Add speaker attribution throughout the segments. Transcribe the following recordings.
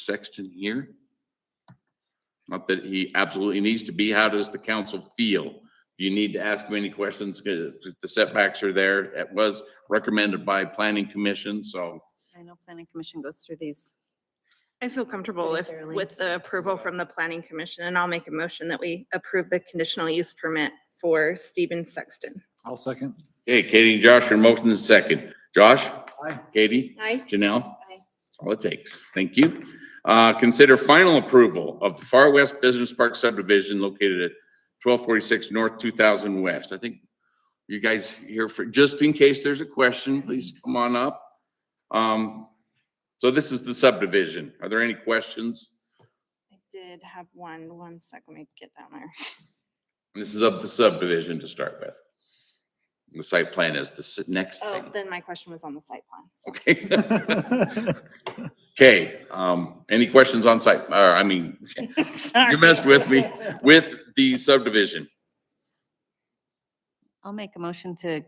Speaker 1: Sexton here? Not that he absolutely needs to be. How does the council feel? Do you need to ask him any questions? 'Cause The setbacks are there. It was recommended by planning commission, so
Speaker 2: I know planning commission goes through these.
Speaker 3: I feel comfortable
Speaker 2: Pretty
Speaker 3: if,
Speaker 2: thoroughly.
Speaker 3: with the approval from the planning commission, and I'll make a motion that we approve the conditional use permit for Stephen Sexton.
Speaker 4: I'll second.
Speaker 1: Okay, Katie and Josh, your motion is second. Josh?
Speaker 4: Aye.
Speaker 1: Katie?
Speaker 3: Aye.
Speaker 1: Janelle?
Speaker 2: Aye.
Speaker 1: That's all it takes. Thank you. Uh, consider final approval of the Far West Business Park subdivision located at twelve forty-six North two thousand West. I think you guys here for, just in case there's a question, please come on up. Um, so this is the subdivision. Are there any questions?
Speaker 3: I did have one, one sec, let me get down there.
Speaker 1: This is of the subdivision to start with. The site plan is the s- next thing.
Speaker 3: Oh, then my question was on the site plan, so.
Speaker 1: Okay, um, any questions on site, or, I mean,
Speaker 3: Sorry.
Speaker 1: you messed with me, with the subdivision.
Speaker 2: I'll make a motion to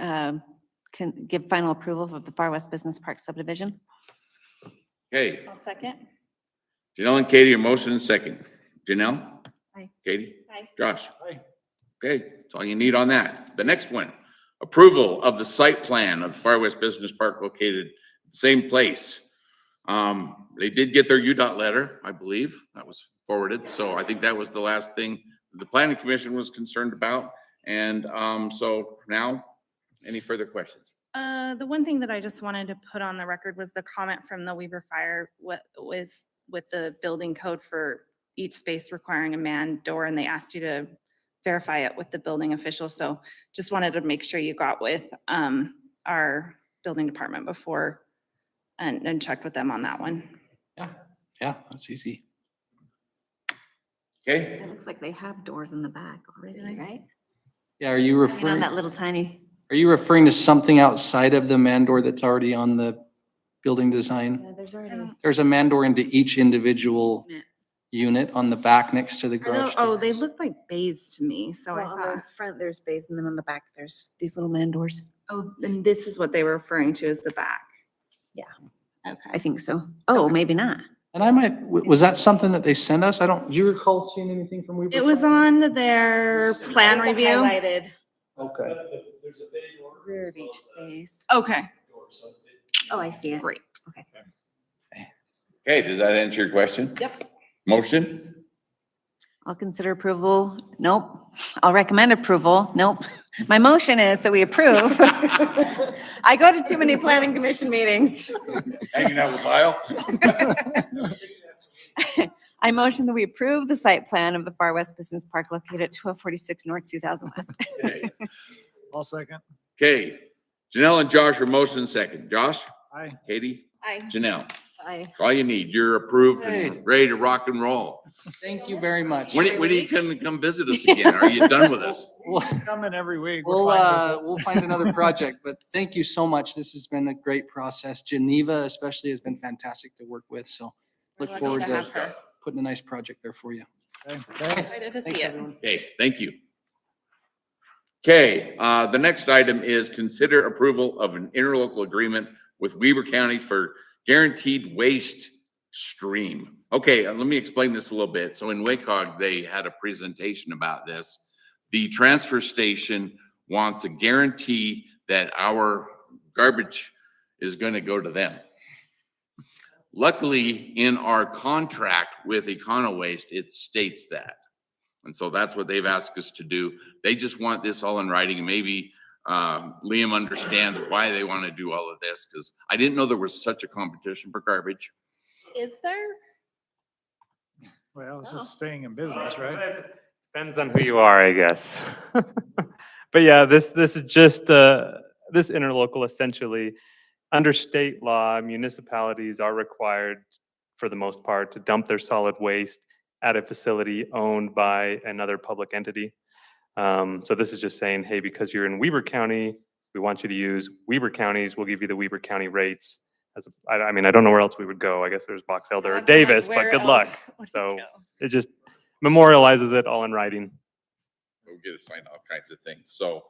Speaker 2: um, can give final approval of the Far West Business Park subdivision.
Speaker 1: Okay,
Speaker 3: I'll second.
Speaker 1: Janelle and Katie, your motion and second. Janelle?
Speaker 2: Aye.
Speaker 1: Katie?
Speaker 3: Aye.
Speaker 1: Josh?
Speaker 4: Aye.
Speaker 1: Okay, that's all you need on that. The next one, approval of the site plan of Far West Business Park located same place. Um, they did get their UDOT letter, I believe, that was forwarded, so I think that was the last thing the planning commission was concerned about. And, um, so now, any further questions?
Speaker 3: Uh, the one thing that I just wanted to put on the record was the comment from the Weaver Fire, what was with the building code for each space requiring a man door, and they asked you to verify it with the building official, so just wanted to make sure you got with, um, our building department before and, and checked with them on that one.
Speaker 4: Yeah, that's easy.
Speaker 1: Okay?
Speaker 2: It looks like they have doors in the back already,
Speaker 3: Really?
Speaker 2: right?
Speaker 4: Yeah, are you
Speaker 2: I mean, on
Speaker 4: referring,
Speaker 2: that little tiny,
Speaker 4: are you referring to something outside of the mandor that's already on the building design?
Speaker 2: Yeah, there's already.
Speaker 4: There's a mandor into each individual
Speaker 3: Yeah.
Speaker 4: unit on the back next to the
Speaker 3: Are tho-
Speaker 4: garage.
Speaker 3: Oh, they
Speaker 4: doors.
Speaker 3: look like bays to me, so I
Speaker 2: Well, uh, on
Speaker 3: thought,
Speaker 2: the front, there's bays, and then on the back, there's these little man doors.
Speaker 3: oh, and this is what they were referring to as the back.
Speaker 2: Yeah. I
Speaker 3: Okay.
Speaker 2: think so. Oh, maybe not.
Speaker 4: And I might, w- was that something that they sent us? I don't, do you recall seeing anything from Weaver?
Speaker 3: It was
Speaker 4: Fire?
Speaker 3: on their plan review.
Speaker 2: Highlighted
Speaker 4: Okay.
Speaker 5: There's a big order.
Speaker 2: rear of each space.
Speaker 3: Okay,
Speaker 2: Oh, I see it.
Speaker 3: great.
Speaker 1: Okay, does that answer your question?
Speaker 3: Yep.
Speaker 1: Motion?
Speaker 2: I'll consider approval. Nope. I'll recommend approval. Nope. My motion is that we approve. I go to too many planning commission meetings.
Speaker 1: Hanging out with Lyle?
Speaker 2: I motion that we approve the site plan of the Far West Business Park located at twelve forty-six North two thousand West.
Speaker 1: Okay.
Speaker 4: I'll second.
Speaker 1: Okay, Janelle and Josh are motion and second. Josh?
Speaker 4: Aye.
Speaker 1: Katie?
Speaker 3: Aye.
Speaker 1: Janelle?
Speaker 2: I
Speaker 1: All you need, you're approved
Speaker 4: Hey.
Speaker 1: and ready to rock and roll.
Speaker 4: Thank you very much.
Speaker 1: When, when are you gonna come visit us again? Are you done with us?
Speaker 4: We'll,
Speaker 6: Coming every week. We're
Speaker 4: we'll,
Speaker 6: fine with
Speaker 4: uh, we'll find another project, but thank you so much. This has been a great process. Geneva especially has been fantastic to work with, so
Speaker 3: We're
Speaker 4: look
Speaker 3: lucky
Speaker 4: forward
Speaker 3: to
Speaker 4: to
Speaker 3: have her.
Speaker 4: putting a nice project there for you.
Speaker 6: it.
Speaker 4: uh,
Speaker 6: Okay, Thanks.
Speaker 3: Excited to
Speaker 4: Thanks,
Speaker 3: see it.
Speaker 4: everyone.
Speaker 1: Okay, thank you. Okay, uh, the next item is consider approval of an interlocal agreement with Weber County for guaranteed waste stream. Okay, uh, let me explain this a little bit. So in WACOG, they had a presentation about this. The transfer station wants a guarantee that our garbage is gonna go to them. Luckily, in our contract with Econo Waste, it states that. And so that's what they've asked us to do. They just want this all in writing. Maybe uh, Liam understands why they want to do all of this because I didn't know there was such a competition for garbage.
Speaker 3: Is there?
Speaker 6: Well, it's just staying in business,
Speaker 5: Well,
Speaker 6: right?
Speaker 5: it's- it's- Depends on who you are, I guess. But yeah, this, this is just, uh, this interlocal essentially, under state law, municipalities are required, for the most part, to dump their solid waste at a facility owned by another public entity. Um, So this is just saying, hey, because you're in Weber County, we want you to use Weber Counties, we'll give you the Weber County rates. As, a- I, I mean, I don't know where else we would go. I guess there's Box Elder or
Speaker 3: That's what I'm like,
Speaker 5: Davis, but
Speaker 3: where
Speaker 5: good luck.
Speaker 3: else would it
Speaker 5: So
Speaker 3: go?
Speaker 5: it just memorializes it all in writing.
Speaker 1: We'll get assigned all kinds of things. So,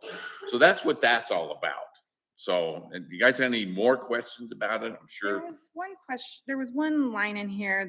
Speaker 1: so that's what that's all about. So, and you guys have any more questions about it? I'm sure.
Speaker 3: There was one question, there was one line in here